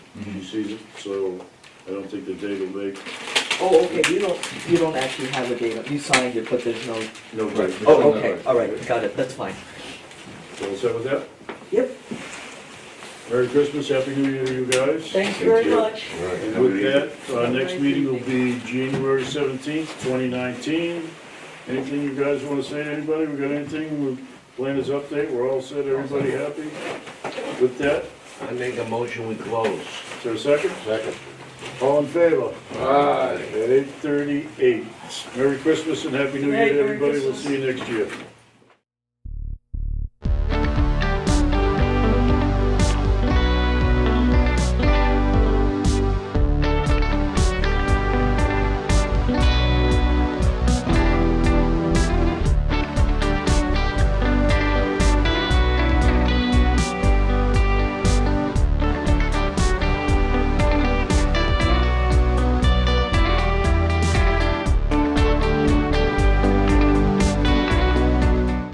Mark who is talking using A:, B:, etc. A: you see it, so I don't think the date will make,
B: Oh, okay, you don't, you don't actually have a date, you signed it, but there's no,
A: no
C: Right.
A: date.
B: oh, okay, all right, got it, that's fine.
A: So all set with that?
B: Yep,
A: Merry Christmas, Happy New Year to you guys.
D: Thank you very
C: you.
D: much.
A: And with that, our next meeting will be January seventeenth, twenty nineteen. Anything you guys wanna say to anybody? We got anything? We plan this update, we're all set, everybody happy? With that,
C: I make a motion, we close.
A: is there a second?
C: Second.
A: All in favor?
C: Aye.
A: At eight thirty-eight. Merry Christmas and Happy New Year
D: Merry
A: to everybody. We'll
D: Christmas.
A: see you next year.